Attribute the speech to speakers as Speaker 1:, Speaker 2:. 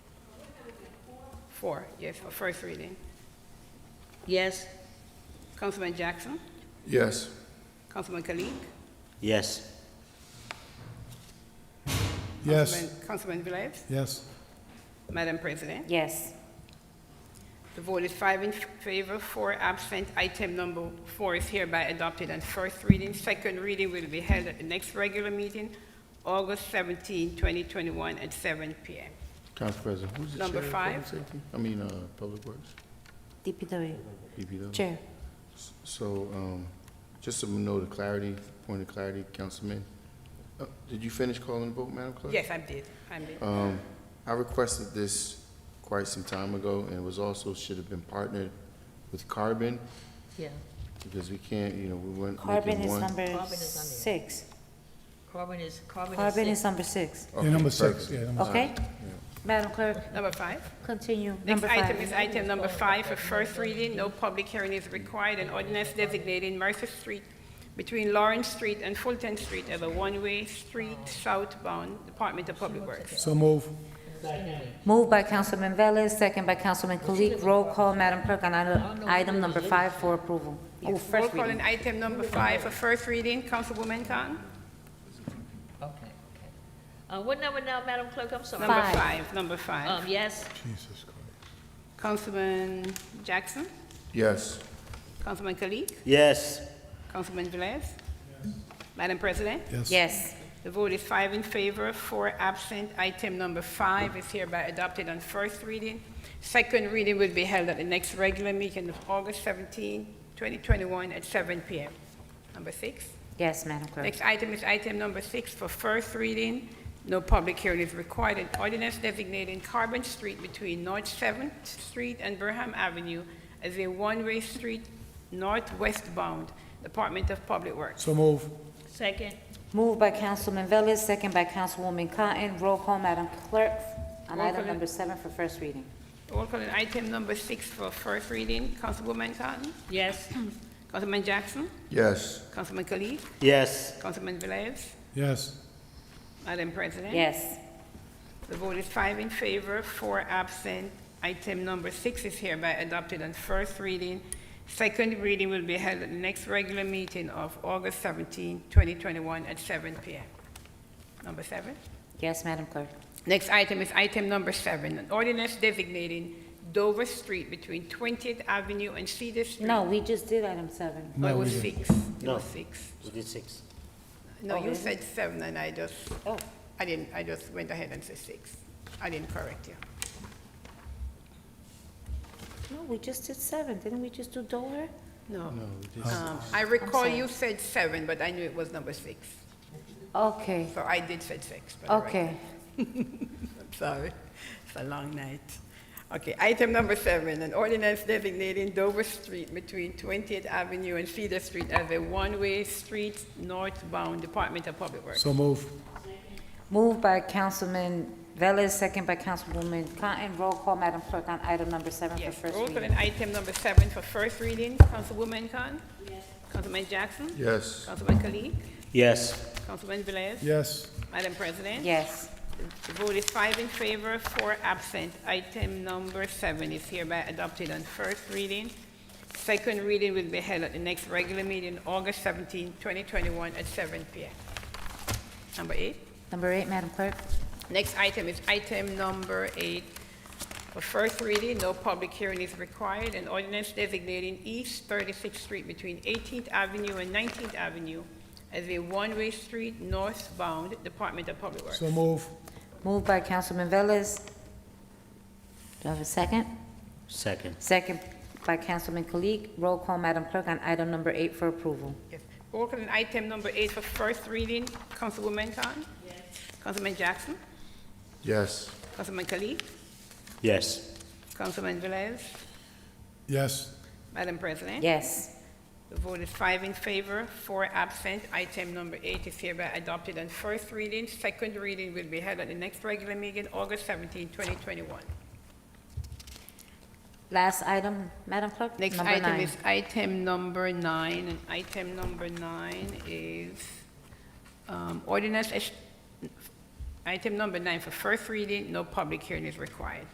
Speaker 1: Four, yeah, for first reading.
Speaker 2: Yes.
Speaker 1: Councilman Jackson,
Speaker 3: Yes.
Speaker 1: Councilman Kalik.
Speaker 4: Yes.
Speaker 3: Yes.
Speaker 1: Councilman- Councilman Velez,
Speaker 3: Yes.
Speaker 1: Madam President.
Speaker 2: Yes.
Speaker 1: The vote is five in favor, four absent. Item number four is hereby adopted on first reading. Second reading will be held at the next regular meeting, August 17, 2021, at 7 p.m.
Speaker 3: Council President, who's the chair?
Speaker 1: Number
Speaker 3: of
Speaker 1: five.
Speaker 3: Public Safety? I mean, uh, Public Works,
Speaker 2: DPW.
Speaker 3: DPW.
Speaker 2: Chair.
Speaker 3: So, um, just to note of clarity, point of clarity, Councilman, uh, did you finish calling the vote, Madam Clerk?
Speaker 1: Yes, I did. I did.
Speaker 3: Um, I requested this quite some time ago, and it was also, should have been partnered with Carbon,
Speaker 5: Yeah,
Speaker 3: because we can't, you know, we weren't
Speaker 2: Carbon
Speaker 3: making
Speaker 2: is
Speaker 3: one.
Speaker 2: number
Speaker 5: Carbon is on there.
Speaker 2: six.
Speaker 5: carbon is, carbon is.
Speaker 2: Carbon
Speaker 5: six.
Speaker 2: is number six.
Speaker 3: Okay,
Speaker 6: Yeah, number six,
Speaker 3: perfect.
Speaker 6: yeah, number six.
Speaker 2: Okay? Madam Clerk,
Speaker 1: Number five.
Speaker 2: continue.
Speaker 1: Next
Speaker 2: Number
Speaker 1: item is
Speaker 2: five.
Speaker 1: item number five for first reading. No public hearing is required. An ordinance designating Mercer Street between Lawrence Street and Fulton Street as a one-way street southbound, Department of Public Works.
Speaker 6: So move.
Speaker 2: Moved by Councilman Velez, second by Councilman Kalik. Roll call, Madam Clerk, on item- item number five for approval. Oh,
Speaker 1: Roll
Speaker 2: first
Speaker 1: call on
Speaker 2: reading.
Speaker 1: item number five for first reading. Councilwoman Khan?
Speaker 5: Okay, okay. Uh, what number now, Madam Clerk, I'm sorry?
Speaker 1: Number
Speaker 2: Five.
Speaker 1: five, number
Speaker 5: Um,
Speaker 1: five.
Speaker 5: yes,
Speaker 6: Jesus Christ.
Speaker 1: Councilman Jackson,
Speaker 3: Yes.
Speaker 1: Councilman Kalik,
Speaker 4: Yes.
Speaker 1: Councilman Velez. Madam President,
Speaker 2: Yes.
Speaker 1: the vote is five in favor, four absent. Item number five is hereby adopted on first reading. Second reading will be held at the next regular meeting of August 17, 2021, at 7 p.m. Number six.
Speaker 2: Yes, Madam Clerk.
Speaker 1: Next item is item number six for first reading. No public hearing is required. An ordinance designating Carbon Street between North Seventh Street and Burham Avenue as a one-way street northwestbound, Department of Public Works.
Speaker 6: So move.
Speaker 5: second,
Speaker 2: Moved by Councilman Velez, second by Councilwoman Cotton. Roll call, Madam Clerk, on
Speaker 1: Roll
Speaker 2: item
Speaker 1: call.
Speaker 2: number seven for first reading.
Speaker 1: Roll call on item number six for first reading. Councilwoman Cotton?
Speaker 5: yes,
Speaker 1: Councilman Jackson?
Speaker 3: Yes.
Speaker 1: Councilman Kalik?
Speaker 4: Yes.
Speaker 1: Councilman Velez?
Speaker 6: Yes.
Speaker 1: Madam President?
Speaker 2: Yes.
Speaker 1: The vote is five in favor, four absent. Item number six is hereby adopted on first reading. Second reading will be held at the next regular meeting of August 17, 2021, at 7 p.m. Number seven.
Speaker 2: Yes, Madam Clerk.
Speaker 1: Next item is item number seven, an ordinance designating Dover Street between 20th Avenue and Cedar Street.
Speaker 2: No, we just did item seven.
Speaker 1: Oh, It
Speaker 6: No,
Speaker 1: was
Speaker 6: we didn't.
Speaker 1: six. It
Speaker 4: No.
Speaker 1: was six.
Speaker 4: We did six.
Speaker 1: No,
Speaker 2: Oh,
Speaker 1: you
Speaker 2: really?
Speaker 1: said seven, and I just,
Speaker 2: Oh.
Speaker 1: I didn't, I just went ahead and said six. I didn't correct you.
Speaker 2: No, we just did seven. Didn't we just do Dover?
Speaker 1: No.
Speaker 3: No, we did-
Speaker 1: Um, I recall
Speaker 2: sorry.
Speaker 1: you said seven, but I knew it was number six.
Speaker 2: Okay,
Speaker 1: So I did said six. but I write
Speaker 2: okay.
Speaker 1: I'm sorry, it's a long night. Okay, item number seven, an ordinance designating Dover Street between 20th Avenue and Cedar Street as a one-way street northbound Department of Public Works.
Speaker 6: So move.
Speaker 2: Moved by Councilman Velez, second by Councilwoman Cotton. Roll call, Madam Clerk, on item number seven for
Speaker 1: Yes,
Speaker 2: first
Speaker 1: roll call
Speaker 2: reading.
Speaker 1: on item number seven for first reading. Councilwoman Khan? Yes. Councilman Jackson?
Speaker 3: Yes.
Speaker 1: Councilman Kalik?
Speaker 4: Yes.
Speaker 1: Councilman Velez?
Speaker 6: Yes.
Speaker 1: Madam President?
Speaker 2: Yes.
Speaker 1: The vote is five in favor, four absent. Item number seven is hereby adopted on first reading. Second reading will be held at the next regular meeting, August 17, 2021, at 7 p.m. Number eight.
Speaker 2: Number eight, Madam Clerk.
Speaker 1: Next item is item number eight. For first reading, no public hearing is required. An ordinance designating East 36th Street between 18th Avenue and 19th Avenue as a one-way street northbound Department of Public Works.
Speaker 6: So move.
Speaker 2: Moved by Councilman Velez. Do I have a second?
Speaker 4: Second.
Speaker 2: Second by Councilman Kalik. Roll call, Madam Clerk, on item number eight for approval.
Speaker 1: Yes. Roll call on item number eight for first reading. Councilwoman Khan? Yes. Councilman Jackson?
Speaker 3: Yes.
Speaker 1: Councilman Kalik?
Speaker 4: Yes.
Speaker 1: Councilman Velez?
Speaker 6: Yes.
Speaker 1: Madam President?
Speaker 2: Yes.
Speaker 1: The vote is five in favor, four absent. Item number eight is hereby adopted on first reading. Second reading will be held at the next regular meeting, August 17, 2021.
Speaker 2: Last item, Madam Clerk?
Speaker 1: Next
Speaker 2: Number
Speaker 1: item
Speaker 2: nine.
Speaker 1: is item number nine, and item number nine is um, ordinance, es- item number nine for first reading, no public hearing is required.